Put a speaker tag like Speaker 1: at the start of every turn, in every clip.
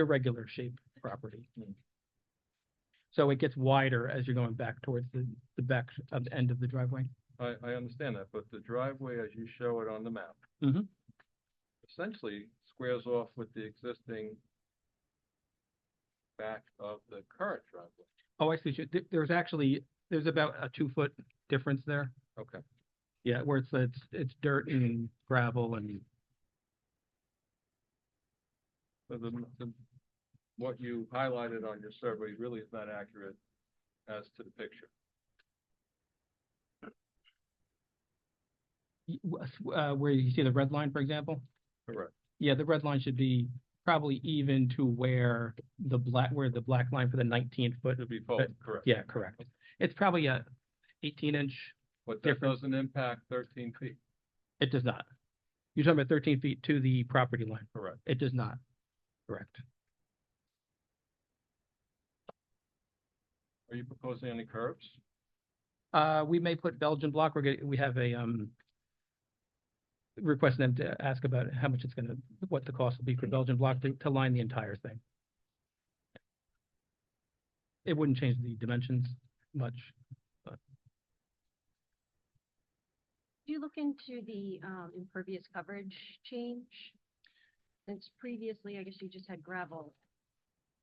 Speaker 1: irregular shaped property. So it gets wider as you're going back towards the, the back of the end of the driveway.
Speaker 2: I, I understand that, but the driveway, as you show it on the map.
Speaker 1: Mhm.
Speaker 2: Essentially squares off with the existing back of the current driveway.
Speaker 1: Oh, I see. Th- There's actually, there's about a two foot difference there.
Speaker 2: Okay,
Speaker 1: Yeah, where it's, it's, it's dirt and gravel and
Speaker 2: so the, the, what you highlighted on your survey really is not accurate as to the picture.
Speaker 1: y- w- s- w- uh, where you see the red line, for example?
Speaker 2: Correct.
Speaker 1: Yeah, the red line should be probably even to where the black, where the black line for the nineteen foot.
Speaker 2: Should be both, correct.
Speaker 1: Yeah, correct. It's probably a eighteen inch.
Speaker 2: But that
Speaker 1: Different.
Speaker 2: doesn't impact thirteen feet,
Speaker 1: It does not. You're talking about thirteen feet to the property line.
Speaker 2: correct?
Speaker 1: It does not. Correct.
Speaker 2: Are you proposing any curves?
Speaker 1: Uh, we may put Belgian block. We're getting, we have a, um, requesting them to ask about how much it's gonna, what the cost will be for Belgian block to, to line the entire thing. It wouldn't change the dimensions much.
Speaker 3: Do you look into the um, impervious coverage change? Since previously, I guess you just had gravel,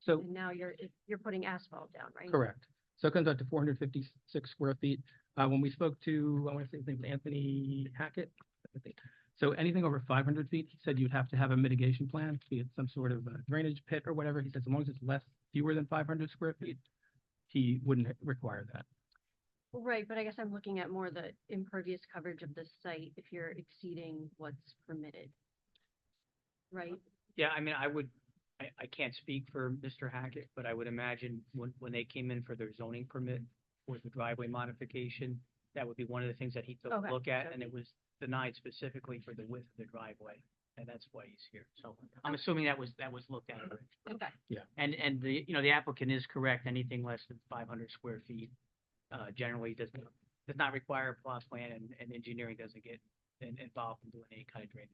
Speaker 1: So,
Speaker 3: and now you're, it- you're putting asphalt down, right?
Speaker 1: correct. So it comes out to four hundred fifty-six square feet. Uh, when we spoke to, I wanna say his name was Anthony Hackett. I think. So anything over five hundred feet, he said you'd have to have a mitigation plan, be it some sort of a drainage pit or whatever. He says as long as it's less, fewer than five hundred square feet, he wouldn't require that.
Speaker 3: Well, Right, but I guess I'm looking at more the impervious coverage of the site if you're exceeding what's permitted. Right?
Speaker 4: Yeah, I mean, I would, I, I can't speak for Mr. Hackett, but I would imagine when, when they came in for their zoning permit for the driveway modification, that would be one of the things that he took
Speaker 3: Okay,
Speaker 4: a look at,
Speaker 3: so
Speaker 4: and
Speaker 3: he-
Speaker 4: it was denied specifically for the width of the driveway, and that's why he's here. So I'm assuming that was, that was looked at.
Speaker 3: Okay.
Speaker 4: And, and the, you know, the applicant is correct, anything less than five hundred square feet, uh, generally does, not does not require a plot plan, and, and engineering doesn't get in- involved in doing any kind of drainage.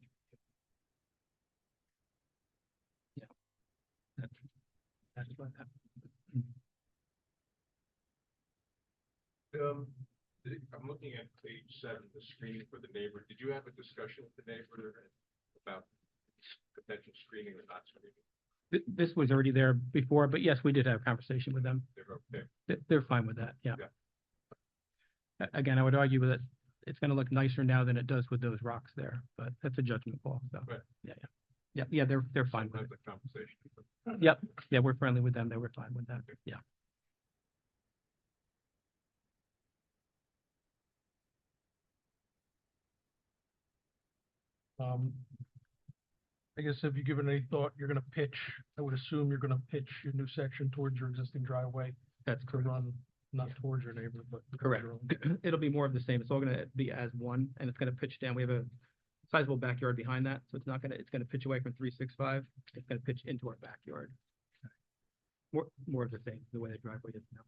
Speaker 1: That's what happened.
Speaker 5: Um, the- I'm looking at page seven, the screening for the neighbor. Did you have a discussion with the neighbor about potential screening or not screening?
Speaker 1: Th- This was already there before, but yes, we did have a conversation with them.
Speaker 5: They're okay.
Speaker 1: They- They're fine with that, yeah.
Speaker 5: Yeah.
Speaker 1: A- Again, I would argue that it's gonna look nicer now than it does with those rocks there, but that's a judgment call, so.
Speaker 5: Right.
Speaker 1: Yeah, yeah. Yeah, yeah, they're, they're fine with it.
Speaker 5: Have the conversation.
Speaker 1: Yep, yeah, we're friendly with them, they were fine with that, yeah.
Speaker 6: Um, I guess have you given any thought, you're gonna pitch, I would assume you're gonna pitch your new section towards your existing driveway
Speaker 1: That's
Speaker 6: to
Speaker 1: correct.
Speaker 6: run, not
Speaker 1: Yeah.
Speaker 6: towards your neighbor, but. towards
Speaker 1: Correct.
Speaker 6: your own.
Speaker 1: It'll be more of the same. It's all gonna be as one and it's gonna pitch down. We have a sizable backyard behind that, so it's not gonna, it's gonna pitch away from three six five. It's gonna pitch into our backyard. More, more of the same, the way the driveway is now.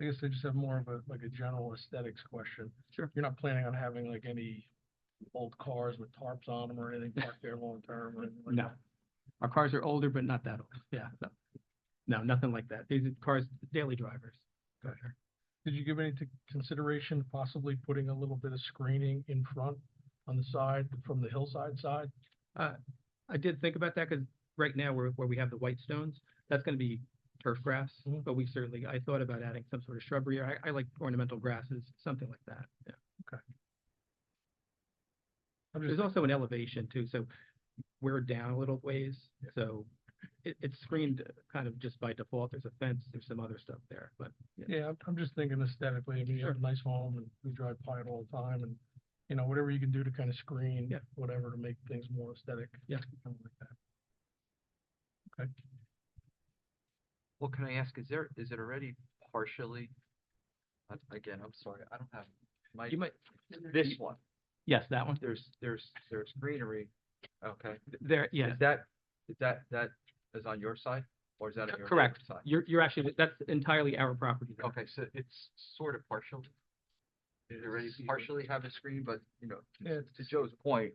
Speaker 6: I guess I just have more of a, like a general aesthetics question.
Speaker 1: Sure.
Speaker 6: You're not planning on having like any old cars with tarps on them or anything parked there long term or anything like
Speaker 1: No.
Speaker 6: that?
Speaker 1: Our cars are older, but not that old. Yeah, no. No, nothing like that. These are cars, daily drivers.
Speaker 6: Okay. Did you give any t- consideration possibly putting a little bit of screening in front on the side, from the hillside side?
Speaker 1: I did think about that because right now where, where we have the white stones, that's gonna be turf grass.
Speaker 6: Mhm.
Speaker 1: But we certainly, I thought about adding some sort of shrubbery. or I, I like ornamental grasses, something like that, yeah.
Speaker 6: I'm just
Speaker 1: There's also an elevation too, so we're down a little ways, so it, it's screened uh, kind of just by default. There's a fence, there's some other stuff there, but yeah.
Speaker 6: Yeah, I'm- I'm just thinking aesthetically, I mean, you have a nice home and we drive by it all the time and, you know, whatever you can do to kind of screen,
Speaker 1: Yeah.
Speaker 6: whatever to make things more aesthetic.
Speaker 1: Yeah.
Speaker 6: something like that.
Speaker 7: Well, can I ask, is there, is it already partially? uh, Again, I'm sorry, I don't have my,
Speaker 1: you might,
Speaker 7: this one,
Speaker 1: yes, that one,
Speaker 7: there's, there's, there's greenery, okay?
Speaker 1: there, yeah,
Speaker 7: Is that, is that, that is on your side, or is that on
Speaker 1: C-
Speaker 7: your neighbor's
Speaker 1: correct.
Speaker 7: side?
Speaker 1: you're, you're actually, that's entirely our property there.
Speaker 7: Okay, so it's sort of partial,
Speaker 5: It
Speaker 7: you already
Speaker 5: is-
Speaker 7: partially have a screen, but, you know,
Speaker 6: Yeah,
Speaker 7: to Joe's point,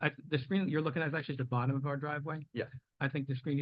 Speaker 1: I, the screen you're looking at is actually the bottom of our driveway.
Speaker 7: Yeah.
Speaker 1: I think the screen